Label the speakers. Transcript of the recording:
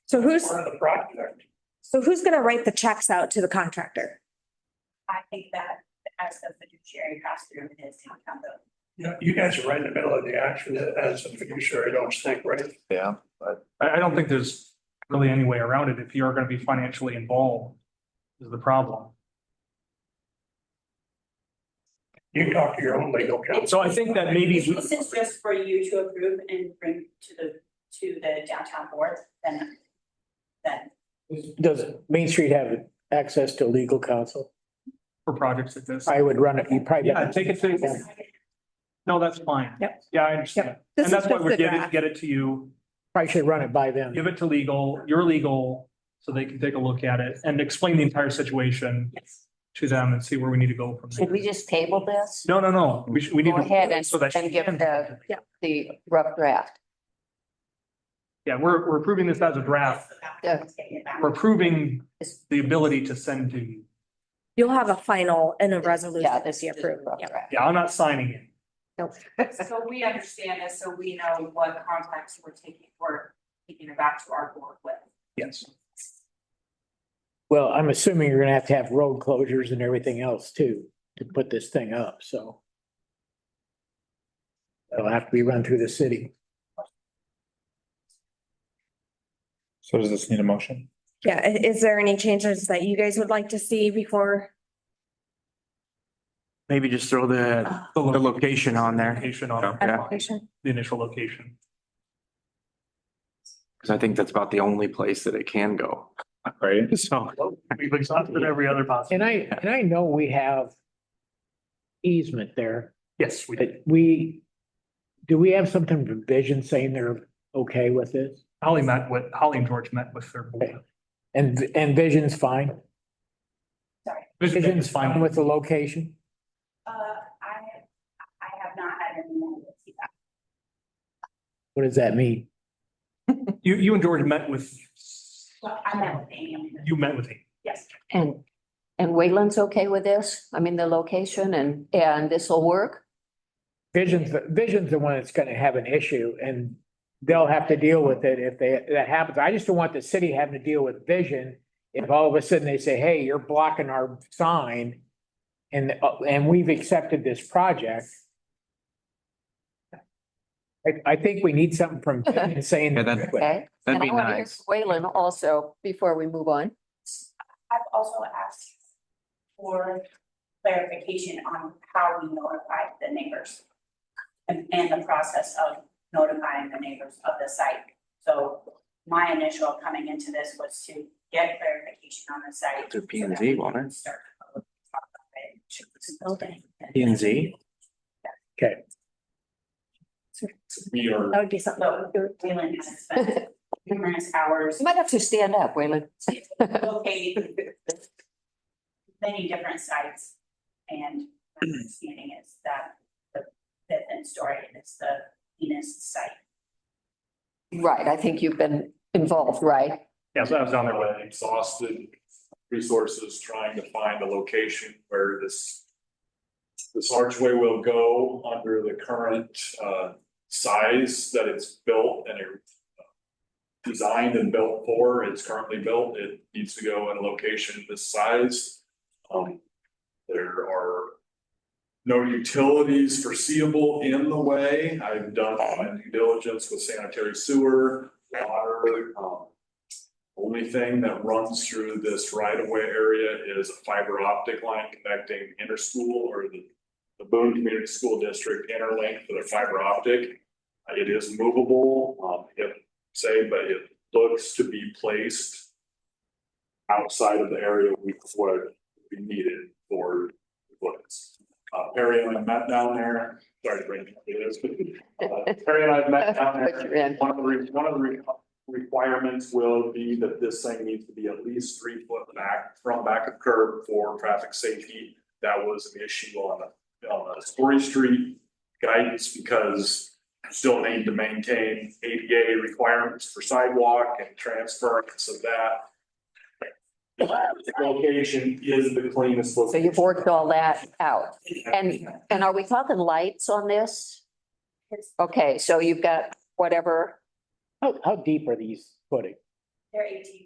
Speaker 1: So who's,
Speaker 2: part of the project.
Speaker 1: so who's gonna write the checks out to the contractor?
Speaker 3: I think that as the fiduciary costume is town council.
Speaker 2: You know, you guys are right in the middle of the action as a fiduciary, don't you think, right?
Speaker 4: Yeah,
Speaker 5: I, I don't think there's really any way around it if you are gonna be financially involved is the problem.
Speaker 2: You can talk to your own legal counsel.
Speaker 5: So I think that maybe
Speaker 3: If This is just for you to approve and bring to the, to the downtown board, then, then
Speaker 6: Does Main Street have access to legal counsel?
Speaker 5: for projects like this.
Speaker 6: I would run it, you probably.
Speaker 5: Yeah, take it to, no, that's fine.
Speaker 1: Yep.
Speaker 5: Yeah, I understand.
Speaker 1: This
Speaker 5: And
Speaker 1: is
Speaker 5: that's why
Speaker 1: just
Speaker 5: we're
Speaker 1: the
Speaker 5: getting,
Speaker 1: draft.
Speaker 5: get it to you,
Speaker 6: Probably should run it by them.
Speaker 5: give it to legal, your legal, so they can take a look at it and explain the entire situation
Speaker 3: yes.
Speaker 5: to them and see where we need to go from there.
Speaker 7: Should we just table this,
Speaker 5: No, no, no, we should, we need
Speaker 7: Go ahead
Speaker 5: to.
Speaker 7: and-
Speaker 5: so that she
Speaker 7: and give
Speaker 5: can-
Speaker 7: the- the rough draft?
Speaker 5: Yeah, we're, we're approving this as a draft.
Speaker 3: So that we can take it back.
Speaker 5: We're approving the ability to send to you.
Speaker 1: You'll have a final and a resolution
Speaker 7: Yeah,
Speaker 1: this
Speaker 7: this
Speaker 1: year
Speaker 7: is
Speaker 1: approved.
Speaker 7: rough
Speaker 1: Yep.
Speaker 7: draft.
Speaker 5: Yeah, I'm not signing it.
Speaker 3: So we understand this, so we know what contacts we're taking, we're taking it back to our board with.
Speaker 5: Yes.
Speaker 6: Well, I'm assuming you're gonna have to have road closures and everything else too, to put this thing up, so. It'll have to be run through the city.
Speaker 4: so does this need a motion?
Speaker 1: Yeah, i- is there any changes that you guys would like to see before?
Speaker 8: Maybe just throw the,
Speaker 5: The
Speaker 8: the location on there,
Speaker 5: Location on.
Speaker 8: Yeah.
Speaker 1: application?
Speaker 5: The initial location.
Speaker 8: because I think that's about the only place that it can go.
Speaker 4: Right.
Speaker 8: So,
Speaker 5: We've exhausted every other possible.
Speaker 6: And I, and I know we have easement there,
Speaker 5: Yes, we did.
Speaker 6: but we, do we have something provision saying they're okay with this?
Speaker 5: Holly met with, Holly and George met with their board.
Speaker 6: And, and Vision's fine?
Speaker 5: Vision's fine
Speaker 6: With the location?
Speaker 3: Uh, I, I have not had any negative feedback.
Speaker 6: What does that mean?
Speaker 5: You, you and George met with,
Speaker 3: Well, I met with Amy. on this.
Speaker 5: you met with him.
Speaker 3: Yes.
Speaker 7: And, and Wayland's okay with this? I mean, the location and, and this will work?
Speaker 6: Vision's, Vision's the one that's gonna have an issue and they'll have to deal with it if they, that happens. I just don't want the city having to deal with Vision. If all of a sudden they say, hey, you're blocking our sign and, uh, and we've accepted this project. I, I think we need something from Vision saying.
Speaker 8: Yeah, that-
Speaker 7: Okay? And I
Speaker 8: that'd be
Speaker 7: want to hear
Speaker 8: nice.
Speaker 7: from Wayland also, before we move on.
Speaker 3: I've also asked for clarification on how we notify the neighbors and, and the process of notifying the neighbors of the site. So my initial coming into this was to get clarification on the site.
Speaker 8: Through P and Z, won't it?
Speaker 3: Start to talk about it.
Speaker 1: Okay.
Speaker 8: P and Z,
Speaker 4: We are
Speaker 1: That would be something. that we would do.
Speaker 3: Wayland has spent numerous hours
Speaker 7: You might have to stand up, Wayland.
Speaker 3: locating many different sites. And my understanding is that the fifth and story is the Venus site.
Speaker 7: Right, I think you've been involved, right?
Speaker 5: Yeah, so I was on their way.
Speaker 4: exhausted resources trying to find a location where this. This archway will go under the current uh size that it's built and it. uh, Designed and built for, it's currently built, it needs to go in a location this size. Um, there are. No utilities foreseeable in the way, I've done my due diligence with sanitary sewer, water, um. Only thing that runs through this right of way area is a fiber optic line connecting inner school or the. The Boone Community School District interlink for the fiber optic. Uh, It is movable, um, if, say, but it looks to be placed. Outside of the area we, what we needed for what's. Uh, Perry and I met down there, sorry to bring it up, it is, but, uh, Perry and I met down there.
Speaker 7: But you're in.
Speaker 4: One of the, re- one of the re- requirements will be that this thing needs to be at least three foot back, from back of curb for traffic safety. That was an issue on, the- on the Story Street guidance because still need to maintain ADA requirements for sidewalk and transference of that. The Location is the cleanest.
Speaker 7: So you've worked all that out. And, and are we talking lights on this? Okay, so you've got whatever,
Speaker 6: How, how deep are these footing?
Speaker 3: They're eighteen